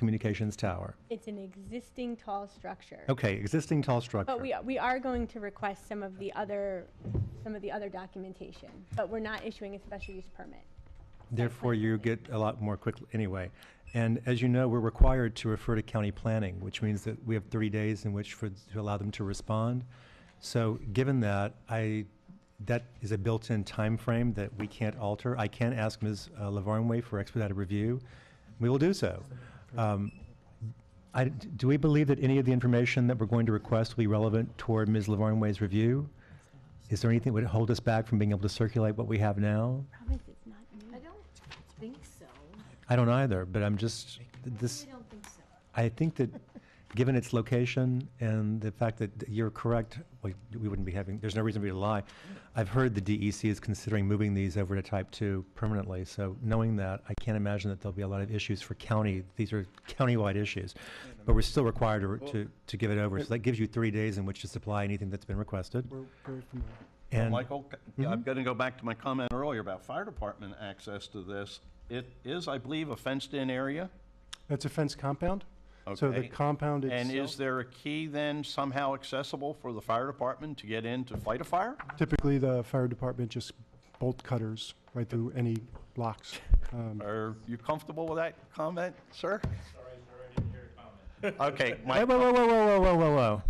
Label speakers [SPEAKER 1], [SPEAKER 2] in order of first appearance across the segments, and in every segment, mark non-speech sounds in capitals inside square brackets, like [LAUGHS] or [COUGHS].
[SPEAKER 1] telecommunications tower?
[SPEAKER 2] It's an existing tall structure.
[SPEAKER 1] Okay, existing tall structure.
[SPEAKER 2] But we, we are going to request some of the other, some of the other documentation, but we're not issuing a special use permit.
[SPEAKER 1] Therefore, you get a lot more quickly, anyway. And as you know, we're required to refer to county planning, which means that we have 30 days in which for, to allow them to respond. So given that, I, that is a built-in time frame that we can't alter. I can ask Ms. Lavarnway for expedited review. We will do so. Um, I, do we believe that any of the information that we're going to request will be relevant toward Ms. Lavarnway's review? Is there anything that would hold us back from being able to circulate what we have now?
[SPEAKER 2] Promise it's not new.
[SPEAKER 3] I don't think so.
[SPEAKER 1] I don't either, but I'm just, this,
[SPEAKER 3] I don't think so.
[SPEAKER 1] I think that, given its location and the fact that you're correct, like, we wouldn't be having, there's no reason for you to lie. I've heard the DEC is considering moving these over to type two permanently, so knowing that, I can't imagine that there'll be a lot of issues for county, these are countywide issues. But we're still required to, to, to give it over, so that gives you three days in which to supply anything that's been requested.
[SPEAKER 4] We're very familiar.
[SPEAKER 1] And, Mm-hmm.
[SPEAKER 5] Michael, yeah, I'm going to go back to my comment earlier about fire department access to this. It is, I believe, a fenced-in area,
[SPEAKER 4] That's a fence compound? So the
[SPEAKER 5] Okay.
[SPEAKER 4] compound
[SPEAKER 5] and is
[SPEAKER 4] itself,
[SPEAKER 5] there a key then somehow accessible for the fire department to get in to fight a fire?
[SPEAKER 4] typically the fire department just bolt cutters right through any locks.
[SPEAKER 5] [LAUGHS]
[SPEAKER 4] Um,
[SPEAKER 5] Are you comfortable with that comment, sir? Sorry, sir, I didn't hear your
[SPEAKER 1] whoa,
[SPEAKER 5] comment.
[SPEAKER 1] whoa, whoa, whoa, whoa, whoa, whoa, whoa.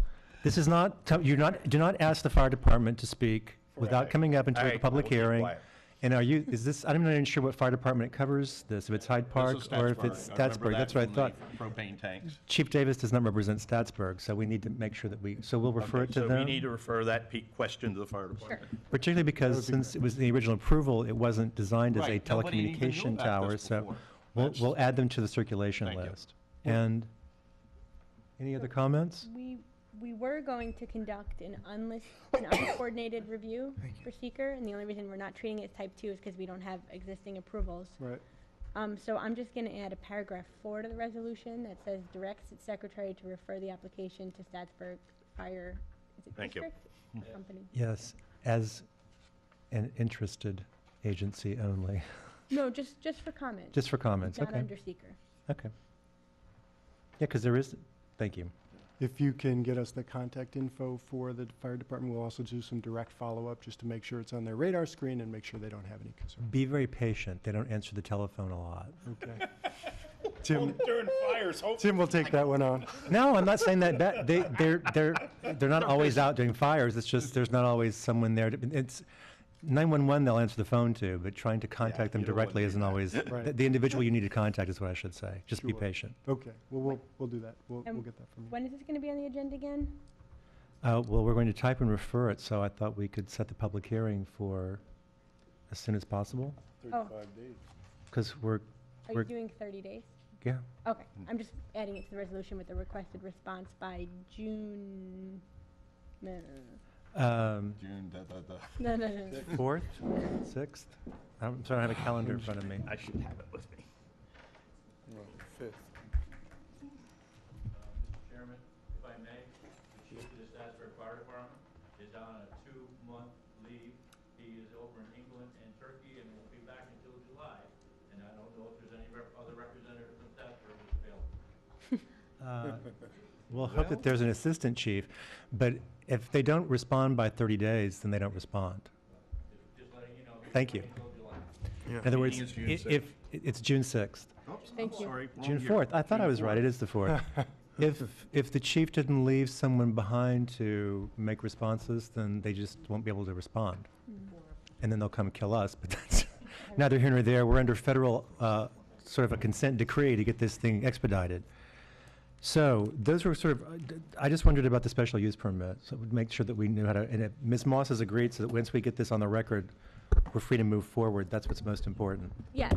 [SPEAKER 1] This is not, t- you're not, do not ask the fire department to speak without
[SPEAKER 5] Correct.
[SPEAKER 1] coming up into
[SPEAKER 5] All right,
[SPEAKER 1] a
[SPEAKER 5] I
[SPEAKER 1] public
[SPEAKER 5] will keep
[SPEAKER 1] hearing.
[SPEAKER 5] quiet.
[SPEAKER 1] And are you, is this, I'm not even sure what fire department it covers, this, if it's Hyde Park
[SPEAKER 5] This is
[SPEAKER 1] or if it's
[SPEAKER 5] I remember
[SPEAKER 1] Statsburg,
[SPEAKER 5] that
[SPEAKER 1] that's what I
[SPEAKER 5] from
[SPEAKER 1] thought.
[SPEAKER 5] the Propane tanks.
[SPEAKER 1] Chief Davis does not represent Statsburg, so we need to make sure that we, so we'll refer it to
[SPEAKER 5] So we need
[SPEAKER 1] them.
[SPEAKER 5] to refer that pe- question to the fire department.
[SPEAKER 1] Particularly because since it was the original approval, it wasn't designed as a
[SPEAKER 5] Right, nobody even knew
[SPEAKER 1] telecommunication
[SPEAKER 5] about
[SPEAKER 1] tower,
[SPEAKER 5] this
[SPEAKER 1] so
[SPEAKER 5] before.
[SPEAKER 1] we'll,
[SPEAKER 5] That's-
[SPEAKER 1] we'll add them to the circulation
[SPEAKER 5] Thank you.
[SPEAKER 1] list. And, any other comments?
[SPEAKER 2] We, we were going to conduct an unlisted, an uncoordinated
[SPEAKER 1] [COUGHS]
[SPEAKER 2] review for seeker, and the only reason we're not treating it as type two is because we don't have existing approvals.
[SPEAKER 4] Right.
[SPEAKER 2] Um, so I'm just gonna add a paragraph four to the resolution that says directs its secretary to refer the application to Statsburg Fire, is it
[SPEAKER 5] Thank you. Mm-hmm.
[SPEAKER 2] district? Company.
[SPEAKER 1] Yes, as an interested agency only, [LAUGHS]
[SPEAKER 2] No, just, just for comment.
[SPEAKER 1] just for comments,
[SPEAKER 2] Not
[SPEAKER 1] okay,
[SPEAKER 2] under seeker.
[SPEAKER 1] okay. Yeah, because there is, thank you.
[SPEAKER 4] If you can get us the contact info for the fire department, we'll also do some direct follow-up just to make sure it's on their radar screen and make sure they don't have any concern.
[SPEAKER 1] Be very patient, they don't answer the telephone a lot.
[SPEAKER 4] Okay. Tim. Tim will take that one on.
[SPEAKER 1] No, I'm not saying that, bad. they, they're, they're, they're not always out doing fires, it's just, there's not always someone there, to- it's, 911 they'll answer the phone to, but trying to contact them
[SPEAKER 5] you don't wanna
[SPEAKER 1] directly
[SPEAKER 5] do
[SPEAKER 1] isn't
[SPEAKER 5] that.
[SPEAKER 1] always,
[SPEAKER 4] Right.
[SPEAKER 1] the the individual you need to contact is what I should say, just be
[SPEAKER 4] Sure.
[SPEAKER 1] patient.
[SPEAKER 4] Okay, well, we'll, we'll do that. We'll, we'll
[SPEAKER 2] Um,
[SPEAKER 4] get that from you.
[SPEAKER 2] When is this gonna be on the agenda again?
[SPEAKER 1] Uh, well, we're going to type and refer it, so I thought we could set the public hearing for as soon as possible,
[SPEAKER 2] Oh,
[SPEAKER 1] because we're,
[SPEAKER 2] are
[SPEAKER 1] we're- Mm.
[SPEAKER 2] you doing thirty days?
[SPEAKER 1] yeah,
[SPEAKER 2] Okay, I'm just adding it to the resolution with the requested response by June. No,
[SPEAKER 1] um,
[SPEAKER 5] June, da, da, da.
[SPEAKER 2] no, no, no, no, no.
[SPEAKER 1] fourth, sixth? I'm sorry, I have a calendar in front of me.
[SPEAKER 5] I should have it with me.
[SPEAKER 6] Mr. Chairman, if I may, the chief of the Statsburg Fire Department is on a two-month leave. He is over in England and Turkey and won't be back until July. And I don't know if there's any rep- other representative from Statsburg who's available.
[SPEAKER 1] Uh, We'll hope that there's an assistant chief, but if they don't respond by 30 days, then they don't respond. Thank you. In other words,
[SPEAKER 5] Meeting is June
[SPEAKER 1] i- if, i- it's June 6th,
[SPEAKER 2] Thank you.
[SPEAKER 1] June 4th, I thought I was right, it is the
[SPEAKER 5] [LAUGHS]
[SPEAKER 1] 4th. If, if the chief didn't leave someone behind to make responses, then they just won't be able to respond.
[SPEAKER 2] Mm-hmm.
[SPEAKER 1] And then they'll come kill us, but that's [LAUGHS] neither here nor there. We're under federal, uh, sort of a consent decree to get this thing expedited. So those were sort of, uh, I just wondered about the special use permit, so we'd make sure that we knew how to, and if Ms. Moss has agreed, so that once we get this on the record, we're free to move forward. That's what's most important.
[SPEAKER 2] Yeah,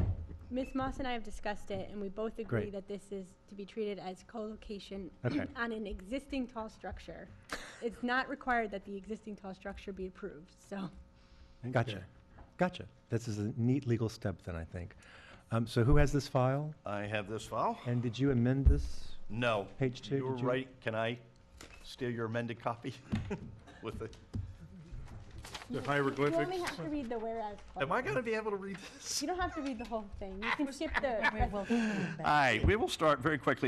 [SPEAKER 2] Ms. Moss and I have discussed it, and we both agree
[SPEAKER 1] Great.
[SPEAKER 2] that this is to be treated as co-location
[SPEAKER 1] Okay.
[SPEAKER 2] [CLEARS THROAT] on an existing tall structure. It's not required that the existing tall structure be approved, so.
[SPEAKER 1] Gotcha. Gotcha. This is a neat legal step then, I think. Um, so who has this file?
[SPEAKER 5] I have this file.
[SPEAKER 1] And did you amend this?
[SPEAKER 5] No.
[SPEAKER 1] Page two,
[SPEAKER 5] You were
[SPEAKER 1] did you-
[SPEAKER 5] [LAUGHS] right. Can I steal your amended copy with
[SPEAKER 7] The
[SPEAKER 5] the
[SPEAKER 2] You only
[SPEAKER 7] hieroglyphics.
[SPEAKER 2] have to read the whereas clause.
[SPEAKER 5] Am I Ah, gonna be able to read this?
[SPEAKER 2] You don't have to read the whole thing. You can skip the.
[SPEAKER 5] All right, we will start very quickly